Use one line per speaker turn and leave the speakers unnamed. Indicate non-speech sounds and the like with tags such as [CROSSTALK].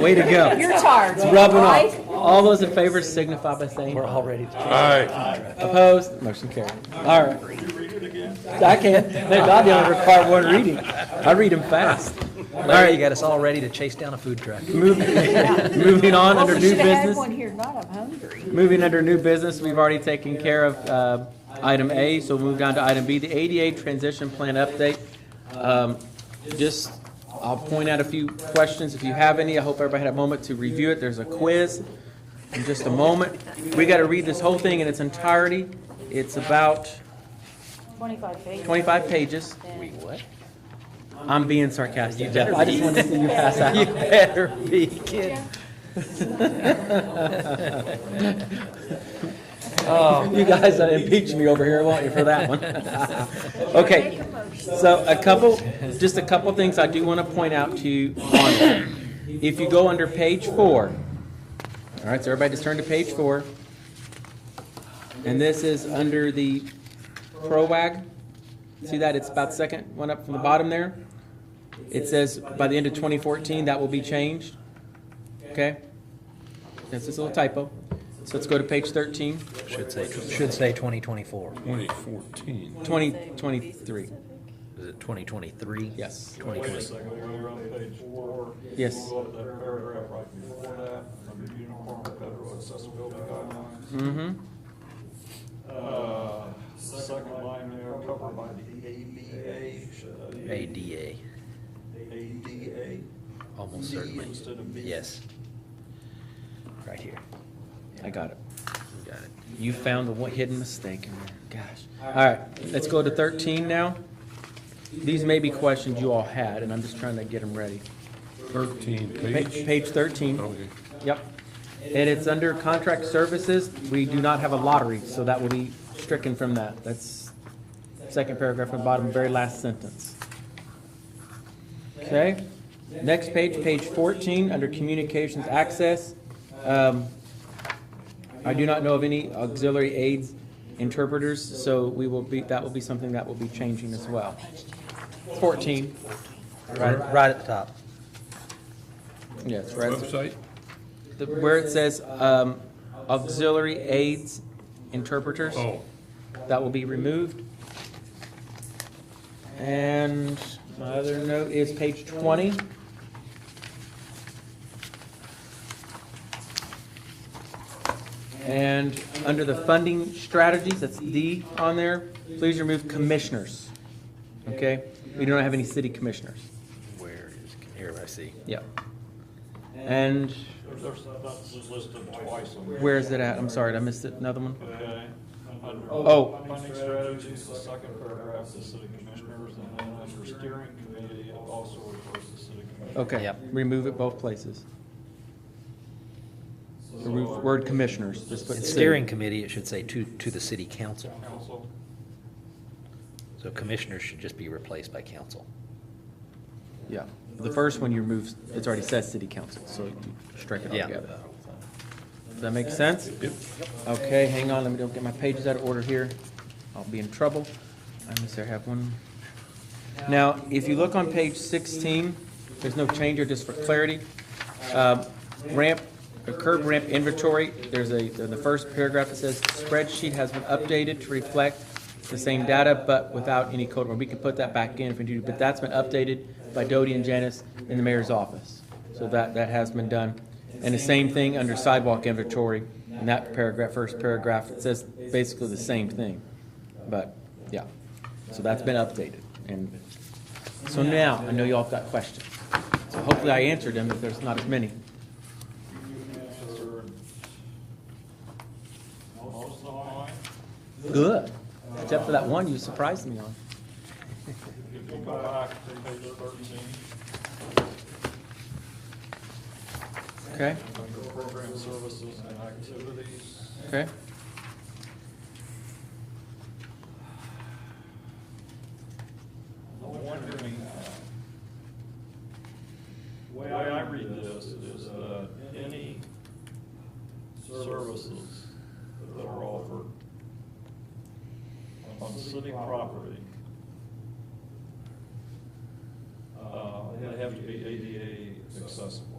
Way to go.
You're charged.
Rubbing off. All those in favor signify by saying
We're
aye.
all ready to.
Aye.
Opposed? Motion carried. All right. I can. They're not going to require one reading. I read them fast. All
Larry, you
right,
got us all ready to chase down a food truck.
moving, [LAUGHS] moving on under new
Should have had
business.
one here, not I'm hungry.
Moving under new business, we've already taken care of uh, item A, so we'll move down to item B, the ADA transition plan update. Um, Just, I'll point out a few questions if you have any. I hope everybody had a moment to review it. There's a quiz in just a moment. We got to read this whole thing in its entirety. It's about
25 pages.
25 pages. Wait, what? I'm being sarcastic, Jeff. I just wanted to see you pass out.
[LAUGHS] You better
[LAUGHS]
be kidding.
You guys uh, impeach me over here, won't you, for that one? [LAUGHS] Okay, so a couple, just a couple things I do want to point out to you on that. If you go under page four, all right, so everybody just turn to page four. And this is under the PROAG. See that? It's about second one up from the bottom there. It says by the end of 2014, that will be changed. Okay? That's just a little typo. So let's go to page 13.
Should say, should say 2024.
2014.
2023.
Is it 2023?
Yes.
2020.
Second, we're on page four.
Yes.
We'll go to that paragraph right before that, under uniform federal accessibility guidelines.
Mm-hmm.
Uh, Second line there, covered by the ADA, should that be
ADA,
ADA?
almost
D
certainly.
instead of B.
Yes. Right here.
I got it.
You Got it.
You found the one hidden mistake in there. Gosh. All right, let's go to 13 now. These may be questions you all had, and I'm just trying to get them ready.
13
Pa-
page.
Page 13,
Okay.
yep. And it's under contract services. We do not have a lottery, so that will be stricken from that. That's second paragraph from the bottom, very last sentence. Okay, next page, page 14, under communications access. Um, I do not know of any auxiliary aids interpreters, so we will be, that will be something that will be changing as well. 14,
Right, right at the top.
yes, right.
Website?
The- Where it says um, auxiliary aids interpreters,
Oh,
that will be removed. And my other note is page 20. And under the funding strategies, that's D on there, please remove commissioners. Okay? We don't have any city commissioners.
Where is, here, I see.
Yep. And
There's, there's, that's listed twice. on there.
where is it at? I'm sorry, did I missed it. Another one?
Okay. Under
Oh.
Funding strategies, the second paragraph, the city commissioners, and then under steering committee, it also refers to city commissioners.
Okay,
Yep.
remove it both places. Remove word commissioners, just put
In
city.
steering committee, it should say to, to the city council.
Council.
So commissioners should just be replaced by council.
Yeah, the first one you remove, it's already says city council, so you strike it
Yeah.
altogether. Does that make sense?
yep.
Okay, hang on, let me don't get my pages out of order here. I'll be in trouble. I must have one. Now, if you look on page 16, there's no change here, just for clarity. Um, Ramp, the curb ramp inventory, there's a, in the first paragraph, it says spreadsheet has been updated to reflect the same data, but without any code. We can put that back in if we do, but that's been updated by Doty and Janice in the mayor's office. So that, that has been done. And the same thing under sidewalk inventory, in that paragraph, first paragraph, it says basically the same thing. But, yeah, so that's been updated. And so now, I know y'all have got questions. So hopefully I answered them, if there's not as many.
Answered. Most online.
Good, except for that one you surprised me on.
If you go back to page thirteen,
Okay,
under program services and activities,
okay.
I'm wondering, uh, the way I read this is uh, that any services that are offered on city property, uh, they have to be ADA accessible.